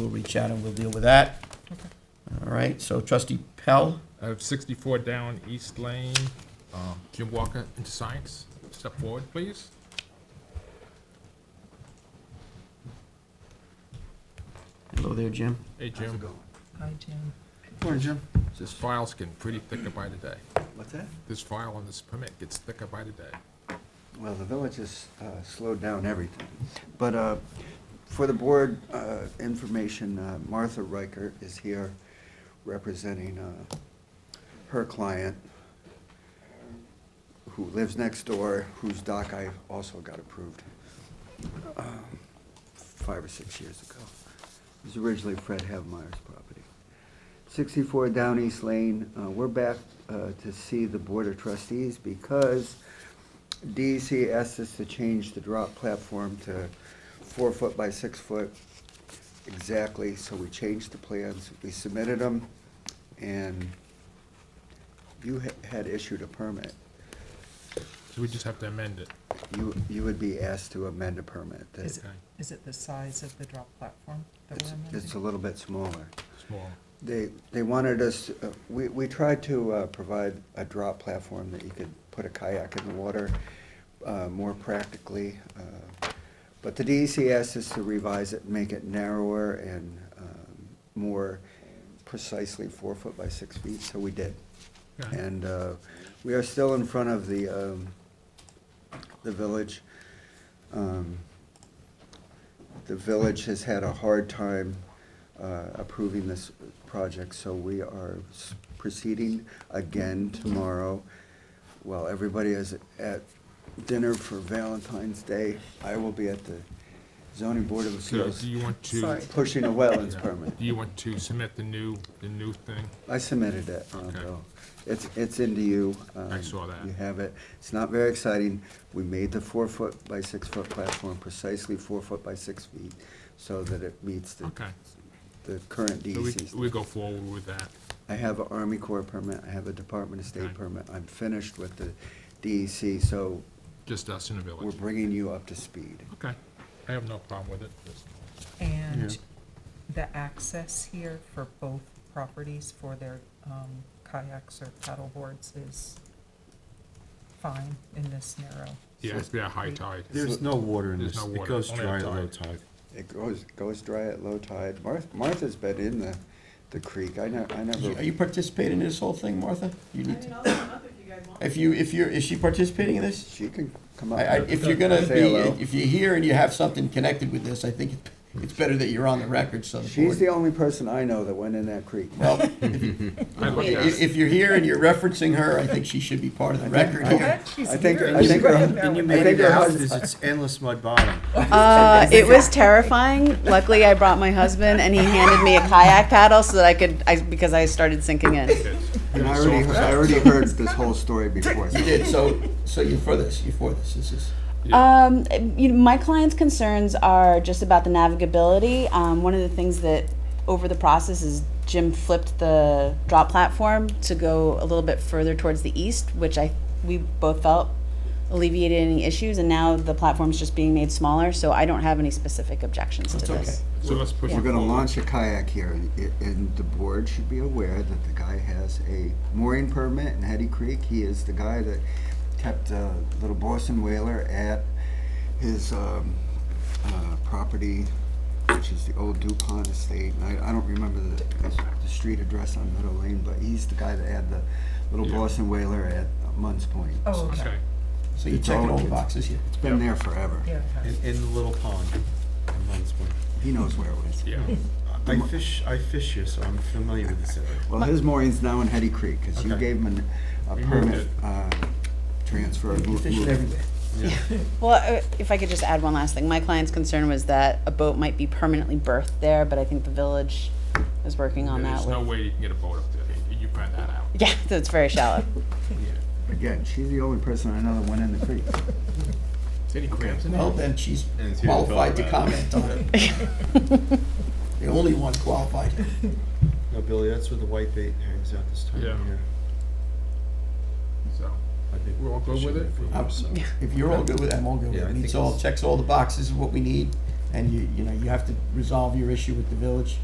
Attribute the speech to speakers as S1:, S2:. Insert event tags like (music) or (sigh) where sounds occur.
S1: We'll reach out and we'll deal with that. All right, so trustee Pell,
S2: I have sixty-four down East Lane, um, Jim Walker into Science. Step forward, please.
S1: hello there, Jim.
S2: Hey, Jim.
S3: Hi, Jim.
S4: Morning, Jim.
S2: This file's getting pretty thicker by the day.
S4: What's that?
S2: This file on this permit gets thicker by the day.
S4: Well, the village has uh, slowed down everything. But uh, for the board uh, information, uh, Martha Riker is here representing uh, her client who lives next door, whose dock I also got approved um, five or six years ago. It was originally Fred Havemeyer's property. 64 Down East Lane, uh, we're back uh, to see the Board of Trustees because DEC asked us to change the drop platform to four foot by six foot exactly, so we changed the plans, we submitted them, and you ha- had issued a permit.
S2: So we just have to amend it.
S4: You, you would be asked to amend a permit. that-
S3: Is it,
S2: Okay.
S3: is it the size of the drop platform that
S4: It's,
S3: we're
S4: it's a
S3: amending?
S4: little bit smaller.
S2: Small.
S4: They, they wanted us, uh, we, we tried to uh, provide a drop platform that you could put a kayak in the water uh, more practically. uh, But the DEC asked us to revise it, make it narrower and um, more precisely four foot by six feet, so we did.
S2: Okay.
S4: And uh, we are still in front of the, um, the village. Um, The village has had a hard time uh, approving this project, so we are s- proceeding again tomorrow. While everybody is at dinner for Valentine's Day, I will be at the zoning board of
S2: So
S4: appeals
S2: do you want to,
S3: Sorry.
S4: pushing a wetlands
S2: Yeah.
S4: permit.
S2: do you want to submit the new, the new thing?
S4: I submitted it,
S2: Okay.
S4: Bill. It's, it's into you.
S2: I
S4: um,
S2: saw that.
S4: You have it. It's not very exciting. We made the four-foot by six-foot platform precisely four foot by six feet so that it meets the,
S2: Okay.
S4: the current
S2: So we,
S4: DEC.
S2: we
S4: standard.
S2: go forward with that.
S4: I have an Army Corps permit, I have a Department of State
S2: Okay.
S4: permit. I'm finished with the DEC, so
S2: Just us in the
S4: we're
S2: village.
S4: bringing you up to speed.
S2: Okay. I have no problem with it. Just-
S3: And the access here for both properties for their um, kayaks or paddle boards is fine in this narrow.
S2: Yeah, it's been a high tide.
S5: There's no water in
S2: There's
S5: this.
S2: no
S5: It
S2: water,
S5: goes
S2: only
S5: dry
S2: at
S5: at low
S2: tide.
S5: tide.
S4: It goes, goes dry at low tide. Martha, Martha's been in the, the creek. I ne, I never.
S1: Are you participating in this whole thing, Martha? You
S6: I
S1: need
S6: mean,
S1: to,
S6: I'll come up if you guys want.
S1: if you, if you're, is she participating in this?
S4: She can come up.
S1: I, I, if you're gonna
S4: Say
S1: be,
S4: hello.
S1: if you're here and you have something connected with this, I think it's better that you're on the record, so.
S4: She's the only person I know that went in that creek.
S1: Well,
S2: I
S1: (laughs)
S2: looked at
S1: if,
S2: it.
S1: if you're here and you're referencing her, I think she should be part of the record here.
S4: I think, I think, her-
S5: And you
S4: I
S5: made
S4: think
S5: it
S4: her
S5: out,
S4: husband-
S5: it's it's endless mud bottom.
S6: Uh, it was terrifying. Luckily, I brought my husband, and he handed me a kayak paddle so that I could, I, because I started sinking in.
S4: and I already, heard- I already heard this whole story
S3: (laughs)
S4: before. so-
S1: You did, so, so you're for this, you're for this, this is.
S6: Um, you know, my client's concerns are just about the navigability. Um, one of the things that over the process is Jim flipped the drop platform to go a little bit further towards the east, which I we both felt alleviated any issues, and now the platform's just being made smaller. So I don't have any specific objections
S1: That's
S6: to
S1: okay.
S6: this.
S2: So let's push it
S4: We're gonna
S2: forward.
S4: launch a kayak here, and it- and the board should be aware that the guy has a mooring permit in Hetty Creek. He is the guy that kept uh little Boston whaler at his um, uh, property, which is the old DuPont Estate. And I, I don't remember the, the street address on Meadow Lane, but he's the guy that had the little
S2: Yeah.
S4: Boston whaler at Munns Point.
S3: Oh, okay,
S2: Okay.
S1: So you're checking all the boxes here.
S4: It's been there forever.
S3: yeah, okay.
S5: In, in the little pond. in Munns Point.
S4: He knows where it was.
S2: Yeah.
S5: I fish, I fish here, so I'm familiar with this area.
S4: Well, his mooring's now in Hetty Creek, because you
S5: Okay.
S4: gave him an- a
S2: We moved
S4: permit,
S2: it.
S4: uh, transfer. mo-
S1: You're fishing
S4: move.
S1: everywhere.
S6: Well, uh, if I could just add one last thing, my client's concern was that a boat might be permanently berthed there, but I think the village is working on that.
S2: There's no
S6: with-
S2: way you can get a boat up there. You find that out.
S6: (laughs) Yeah, it's very shallow.
S4: Again, she's the only person I know that went in the creek.
S2: Any crabs in there?
S1: Well, then she's
S5: And it's here to talk
S1: qualified to
S5: about
S1: comment on it. The only one qualified.
S5: No, Billy, that's where the white bait hangs out this time
S2: Yeah.
S5: of year.
S2: So,
S5: I think
S2: We're all good
S5: fishing
S2: with it?
S5: there for years, so.
S1: If you're all good with it, I'm all good with
S5: Yeah,
S1: it.
S5: I
S1: It
S5: think
S1: meets all,
S5: it's-
S1: checks all the boxes of what we need. and you, you know, you have to resolve your issue with the village.